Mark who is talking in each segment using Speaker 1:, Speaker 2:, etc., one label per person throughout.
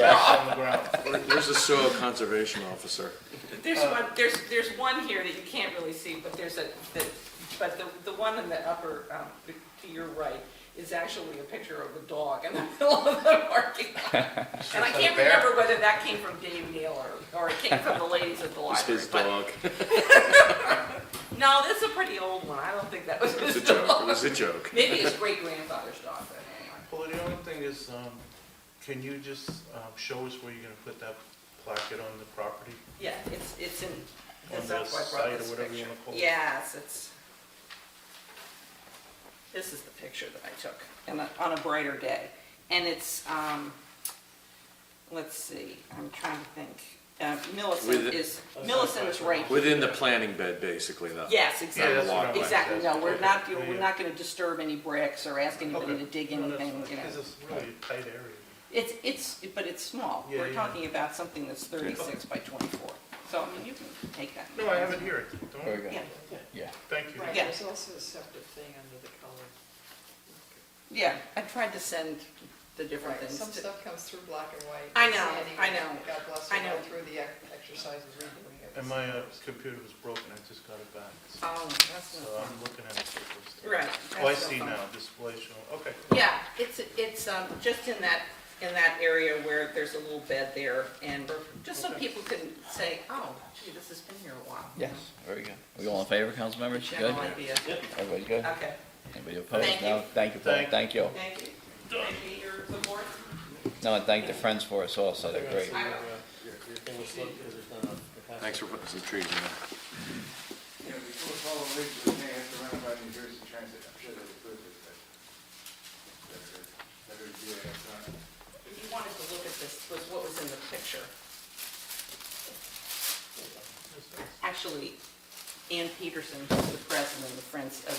Speaker 1: on the ground.
Speaker 2: Where's the soil conservation officer?
Speaker 3: There's
Speaker 2: Uh,
Speaker 3: one, there's, there's one here that you can't really see, but there's a, the- but the, the one in the upper, um, to your right, is actually a picture of a dog in the middle of the parking lot. And I
Speaker 1: It's a
Speaker 3: can't
Speaker 1: bear.
Speaker 3: remember whether that came from Dave Neal or, or it came from the ladies at the
Speaker 2: It's
Speaker 3: library.
Speaker 2: his
Speaker 3: but-
Speaker 2: dog.
Speaker 3: No, this is a pretty old one, I don't think that was
Speaker 2: It's a
Speaker 3: his
Speaker 2: joke, it
Speaker 3: dog.
Speaker 2: was a joke.
Speaker 3: Maybe his great grandfather's dog, but anyway.
Speaker 1: Well, the only thing is, um, can you just, um, show us where you're gonna put that placket on the property?
Speaker 3: Yeah, it's, it's in,
Speaker 1: On
Speaker 3: that's
Speaker 1: the
Speaker 3: why I
Speaker 1: site or
Speaker 3: brought this
Speaker 1: whatever you
Speaker 3: picture.
Speaker 1: wanna call it.
Speaker 3: Yes, it's, this is the picture that I took, and on- on a brighter day. And it's, um, let's see, I'm trying to think, Uh, Millicent
Speaker 2: With-
Speaker 3: is, Millicent is right here.
Speaker 2: Within the planting bed, basically, though.
Speaker 3: Yes,
Speaker 1: Yeah,
Speaker 3: exactly,
Speaker 1: that's what I'm-
Speaker 3: exactly, no, we're not,
Speaker 1: Okay.
Speaker 3: we're not gonna disturb any bricks or ask anybody to dig
Speaker 1: No, that's
Speaker 3: anything,
Speaker 1: fine,
Speaker 3: you know.
Speaker 1: Cause it's really a tight area.
Speaker 3: It's, it's, but it's small.
Speaker 1: Yeah,
Speaker 3: We're
Speaker 1: yeah.
Speaker 3: talking about something that's 36 by 24. So, I mean, you can take that.
Speaker 1: No, I have it here, don't,
Speaker 4: Very
Speaker 1: worry.
Speaker 4: good.
Speaker 3: Yeah,
Speaker 4: Yeah.
Speaker 1: thank you.
Speaker 5: Right,
Speaker 3: Yeah.
Speaker 5: there's also a separate thing under the color.
Speaker 3: yeah, I tried to send the different
Speaker 5: Right,
Speaker 3: things.
Speaker 5: some
Speaker 3: to-
Speaker 5: stuff comes through black and white.
Speaker 3: I
Speaker 5: and
Speaker 3: know,
Speaker 5: sandy,
Speaker 3: I know,
Speaker 5: God bless
Speaker 3: I
Speaker 5: her,
Speaker 3: know.
Speaker 5: go through the ex- exercise of redoing it.
Speaker 1: And my, uh, computer was broken, I just got it back, so
Speaker 3: Oh, that's not
Speaker 1: I'm looking at it for the first time.
Speaker 3: Right.
Speaker 1: Oh, I
Speaker 3: that's no
Speaker 1: see
Speaker 3: fun.
Speaker 1: now, display show, okay.
Speaker 3: Yeah, it's, it's um, just in that, in that area where there's a little bed there and just so people can say, oh, gee, this has been here a while. you
Speaker 4: Yes, very good. We all in favor, council members? You
Speaker 3: know,
Speaker 4: Good?
Speaker 3: General idea.
Speaker 4: Everybody good?
Speaker 3: Okay,
Speaker 4: Anybody opposed?
Speaker 3: Thank
Speaker 4: No?
Speaker 3: you.
Speaker 4: Thank you, Paul.
Speaker 1: Thank-
Speaker 4: Thank you.
Speaker 3: thank you. Thank you, your support.
Speaker 4: No, and thank the friends for us also. They're great.
Speaker 3: I will.
Speaker 2: Thanks for putting some trees in there.
Speaker 6: Yeah, before Paul leaves, we may have to run by New Jersey Transit, I'm sure they'll approve it, but better, better uh, do it outside.
Speaker 3: If you wanted to look at this, was what was in the picture. Actually, Ann Peterson, who's the president of the Friends, uh,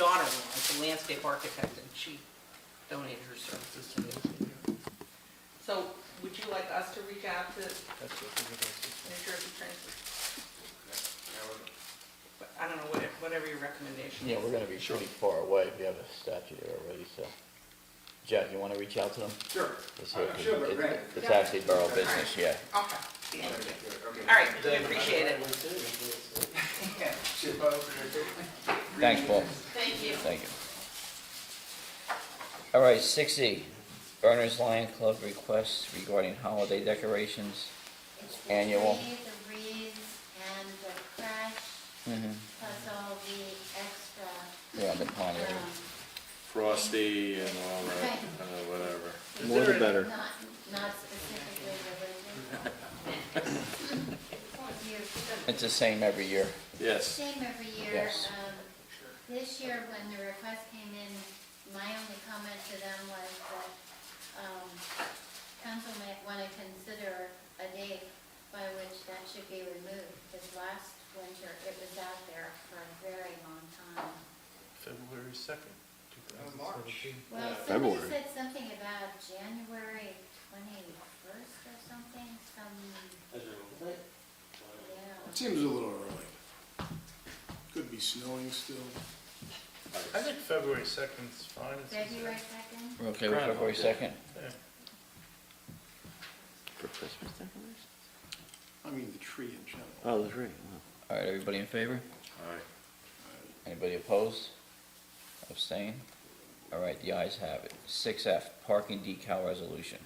Speaker 3: daughter-in-law, is a landscape architect, and she donated her services to me. So would you like us to reach out to New
Speaker 1: That's what we're gonna
Speaker 3: Jersey Transit?
Speaker 6: Now, we're-
Speaker 3: I don't know, whatever, whatever your recommendation is.
Speaker 4: Yeah, we're gonna be pretty far away. We have a statue there already, so. Jack, you wanna reach out to them?
Speaker 6: Sure,
Speaker 4: Let's see if
Speaker 6: I'm
Speaker 4: we-
Speaker 6: Uh, sure, but
Speaker 4: it-
Speaker 6: right.
Speaker 4: It's actually borough business, yeah.
Speaker 3: Okay, thank you.
Speaker 6: All
Speaker 3: All right, we appreciate it.
Speaker 6: Should Paul open it too?
Speaker 4: Thanks, Paul.
Speaker 3: Thank you.
Speaker 4: Thank you. All right, six E, Berners Lion Club requests regarding holiday decorations.
Speaker 7: It's
Speaker 4: Annual.
Speaker 7: The tree, the wreaths, and the crash,
Speaker 4: Mm-hmm.
Speaker 7: plus all the extra,
Speaker 4: Yeah, the pond area.
Speaker 7: um,
Speaker 2: Frosty and all that, uh, whatever.
Speaker 7: Is
Speaker 2: More the better.
Speaker 7: not, not specifically religious.
Speaker 4: It's the same every year.
Speaker 2: Yes.
Speaker 7: Same every year.
Speaker 4: Yes.
Speaker 7: Um, This year, when the request came in, my only comment to them was that um, council might want to consider a date by which that should be removed, because last winter, it was out there for a very long time.
Speaker 1: February second, two thousand seventeen.
Speaker 7: Well, somebody
Speaker 2: February.
Speaker 7: said something about January 21st or something, some, yeah.
Speaker 8: Seems a little early. Could be snowing still.
Speaker 1: I think February second's fine. It's-
Speaker 7: February 2nd?
Speaker 4: We're okay with February second?
Speaker 1: Yeah.
Speaker 2: For Christmas decorations?
Speaker 8: I mean, the tree in general.
Speaker 2: Oh, that's right.
Speaker 4: All right, everybody in favor?
Speaker 2: All right.
Speaker 4: Anybody opposed? Abstain? All right, the ayes have it. Six F, parking decal resolution.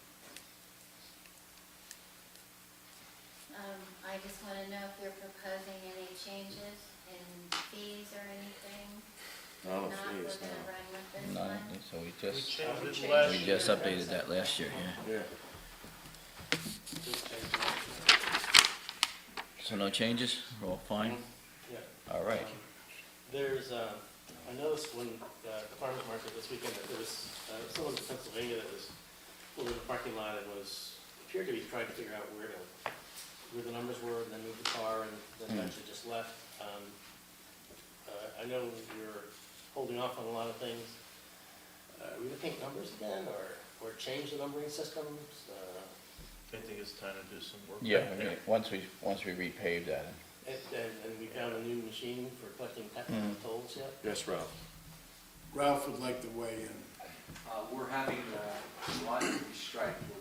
Speaker 7: Um, I just want to know if they're proposing any changes in fees or anything.
Speaker 2: Oh, No,
Speaker 7: If Not,
Speaker 2: please,
Speaker 7: we're gonna run with this
Speaker 4: None,
Speaker 7: one.
Speaker 4: so we
Speaker 1: We
Speaker 4: just,
Speaker 1: changed it
Speaker 5: We
Speaker 1: last
Speaker 4: we
Speaker 1: year.
Speaker 4: just updated that last year, yeah.
Speaker 2: no. Yeah.
Speaker 4: So no changes? We're all fine?
Speaker 9: Yeah.
Speaker 4: All right.
Speaker 9: There's, uh, I noticed when uh, the farmer's market this weekend, that there was, uh, someone in Pennsylvania that was pulled in the parking lot and was, appeared to be trying to figure out where to, where the numbers were, and then moved the car, and then
Speaker 4: Hmm.
Speaker 9: eventually just left. Um, uh, I know you're holding off on a lot of things. Uh, Are we gonna paint numbers again, or, or change the numbering systems? Uh,
Speaker 1: I think it's time to do some work.
Speaker 4: Yeah,
Speaker 1: back
Speaker 4: we-
Speaker 1: there.
Speaker 4: once we, once we repave that.
Speaker 9: And, and and we found a new machine for collecting technical tolls yet?
Speaker 2: Yes, Ralph.
Speaker 8: Ralph would like to weigh in.
Speaker 6: Uh, we're having, uh, one strike, we're